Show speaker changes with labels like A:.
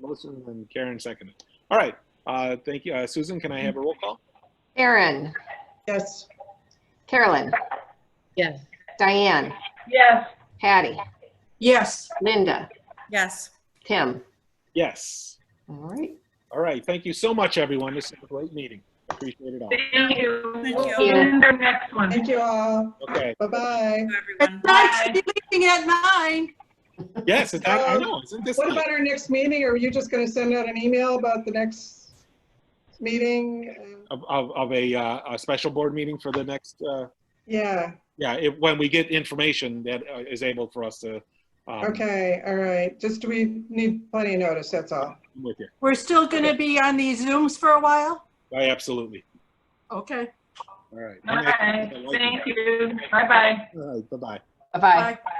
A: Motion and Karen seconded. All right, uh, thank you. Uh, Susan, can I have a roll call?
B: Aaron,
C: Yes.
B: Carolyn,
D: Yes.
B: Diane,
D: Yes.
B: Patty,
C: Yes.
B: Linda,
E: Yes.
B: Tim.
A: Yes.
B: All right.
A: All right, thank you so much, everyone. This is a great meeting. Appreciate it all.
D: Thank you.
E: Thank
D: We'll
E: you.
D: see you in the next one.
C: Thank you all.
A: Okay.
C: Bye-bye.
E: Everyone.
D: Bye.
F: Meeting at nine.
A: Yes, is that, I know, isn't this
C: What
A: nice?
C: about our next meeting? Are you just going to send out an email about the next meeting?
A: Of, of, of a, uh, a special board meeting for the next, uh,
C: Yeah,
A: yeah, if, when we get information that uh, is able for us to, um,
C: okay, all right. Just we need plenty of notice, that's all.
A: I'm with you.
F: We're still going to be on these Zooms for a while?
A: I absolutely.
F: Okay.
A: All right.
D: Bye. Thank you. Bye-bye.
A: All right, bye-bye.
B: Bye-bye.
F: Bye.